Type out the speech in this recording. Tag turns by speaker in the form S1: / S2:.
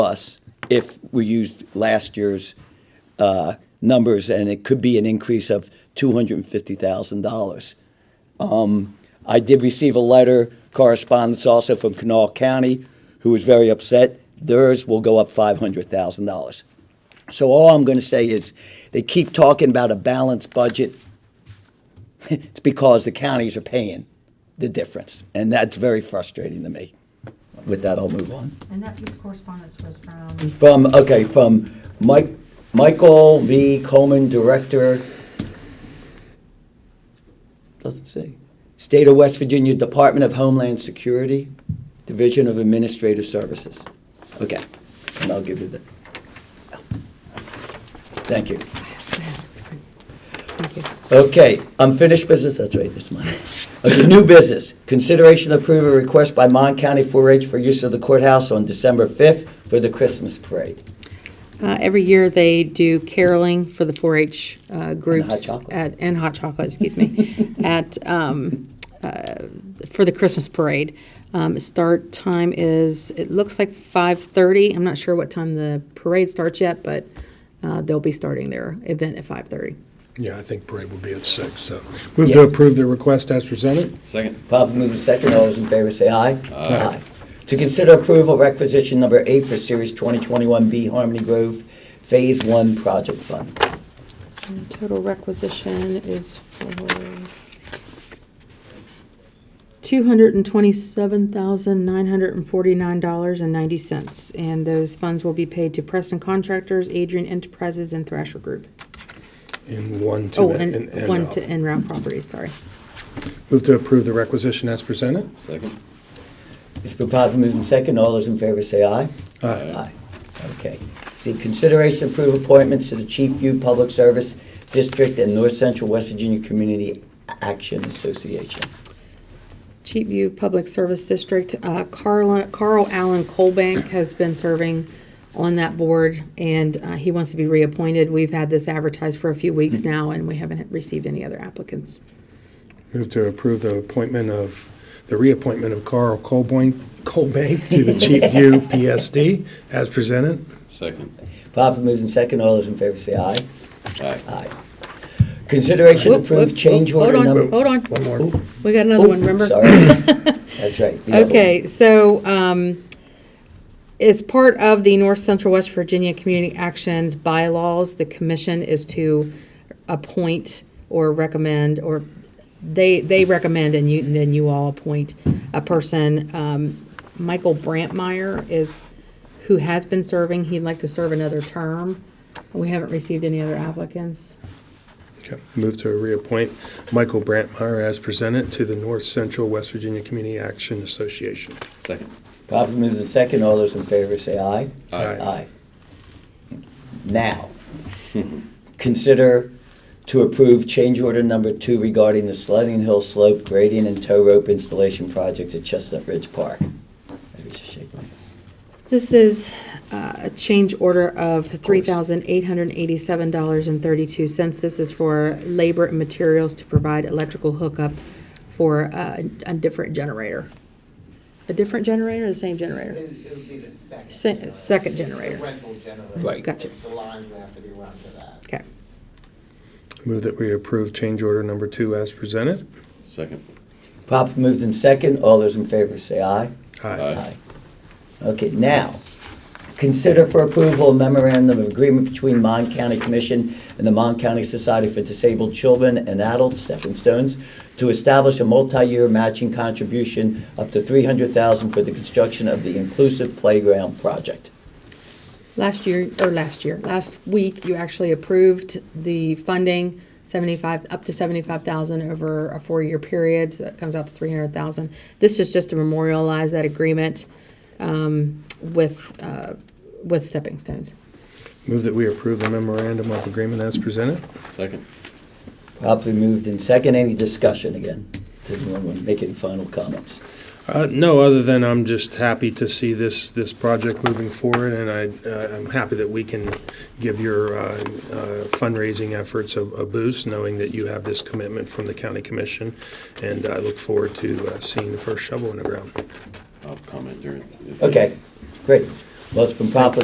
S1: us if we used last year's uh, numbers, and it could be an increase of $250,000. Um, I did receive a letter, correspondence also from Kanawha County, who was very upset. Theirs will go up $500,000. So all I'm going to say is, they keep talking about a balanced budget. It's because the counties are paying the difference, and that's very frustrating to me. With that, I'll move on.
S2: And that piece of correspondence was from,
S1: From, okay, from Mike, Michael V. Coleman, Director, doesn't say, State of West Virginia Department of Homeland Security, Division of Administrative Services. Okay, and I'll give you the, thank you. Okay, unfinished business, that's right, that's mine. Okay, new business, consideration approve a request by Mon County 4-H for use of the courthouse on December 5th for the Christmas parade.
S3: Uh, Every year, they do caroling for the 4-H uh, groups.
S1: chocolate.
S3: at- And hot chocolate, excuse me, at, um, uh, for the Christmas parade. Um, Start time is, it looks like 5:30. I'm not sure what time the parade starts yet, but uh, they'll be starting their event at 5:30.
S4: Yeah, I think parade would be at six, so. Move to approve the request as presented?
S5: Second.
S1: Probably moving second, all those in favor say aye. Aye. To consider approval requisition number eight for Series 2021B Harmony Grove Phase One Project Fund.
S3: And Total requisition is for two hundred and twenty-seven thousand, nine hundred and forty-nine dollars and ninety cents. And those funds will be paid to Preston Contractors, Adrian Enterprises, and Thrasher Group.
S4: And one to.
S3: Oh,
S4: en- en-
S3: and
S4: en-
S3: one to Enroute Properties, sorry.
S4: Move to approve the requisition as presented?
S5: Second.
S1: It's been properly moved in second, all those in favor say aye.
S4: Aye.
S1: Okay. See, consideration approve appointments to the Chief View Public Service District and North Central West Virginia Community Action Association.
S3: Cheapview Public Service District, uh, Carl Carl Allen Colbank has been serving on that board, and uh, he wants to be reappointed. We've had this advertised for a few weeks now, and we haven't received any other applicants.
S4: Move to approve the appointment of, the reappointment of Carl Colboin, Colbank to the Chief View PSD as presented?
S5: Second.
S1: Properly moved in second, all those in favor say aye.
S5: Aye.
S1: Aye. Consideration
S3: Whoop, whoop,
S1: approved change
S3: whoop, hold
S1: order
S3: on,
S1: number.
S3: Hold on,
S4: One more.
S3: we got another
S1: Oh,
S3: one, remember?
S1: Sorry. That's right. the other one.
S3: Okay, so um, as part of the North Central West Virginia Community Actions bylaws, the commission is to appoint or recommend, or they, they recommend and you, and then you all appoint a person. Um, Michael Brantmeyer is, who has been serving, he'd like to serve another term. We haven't received any other applicants.
S4: Okay. Move to reappoint Michael Brantmeyer as presented to the North Central West Virginia Community Action Association.
S5: Second.
S1: Properly moved in second, all those in favor say aye.
S4: Aye.
S1: Aye. Now, consider to approve change order number two regarding the sledding hill slope grading and tow rope installation project at Chestnut Ridge Park. Maybe it's a shake one.
S3: This is uh, a change order of $3,887.32. This is for labor and materials to provide electrical hookup for uh, a different generator. A different generator or the same generator?
S6: It- It'll be the second.
S3: Se- second
S6: generator. It's the
S3: generator.
S6: Rental generator.
S1: Right.
S3: Gotcha.
S6: It's The lines that have to be run to that.
S3: Okay.
S4: Move that we approve change order number two as presented?
S5: Second.
S1: Properly moved in second, all those in favor say aye. Aye. Okay, now, consider for approval a memorandum of agreement between Mon County Commission and the Mon County Society for Disabled Children and Adults, Stepping Stones, to establish a multi-year matching contribution up to three hundred thousand for the construction of the Inclusive Playground Project.
S3: Last year, or last year, last week, you actually approved the funding, 75, up to 75,000 over a four-year period, so that comes out to 300,000. This is just to memorialize that agreement um, with, uh, with Stepping Stones.
S4: Move that we approve the memorandum of agreement as presented?
S5: Second.
S1: Properly moved in second, any discussion again? Does anyone want to make any final comments?
S4: Uh, no, other than I'm just happy to see this, this project moving forward, and I, uh, I'm happy that we can give your uh, uh, fundraising efforts a, a boost, knowing that you have this commitment from the county commission, and I look forward to uh, seeing the first shovel in the ground.
S5: I'll comment during.
S1: Okay, great. Well, it's been properly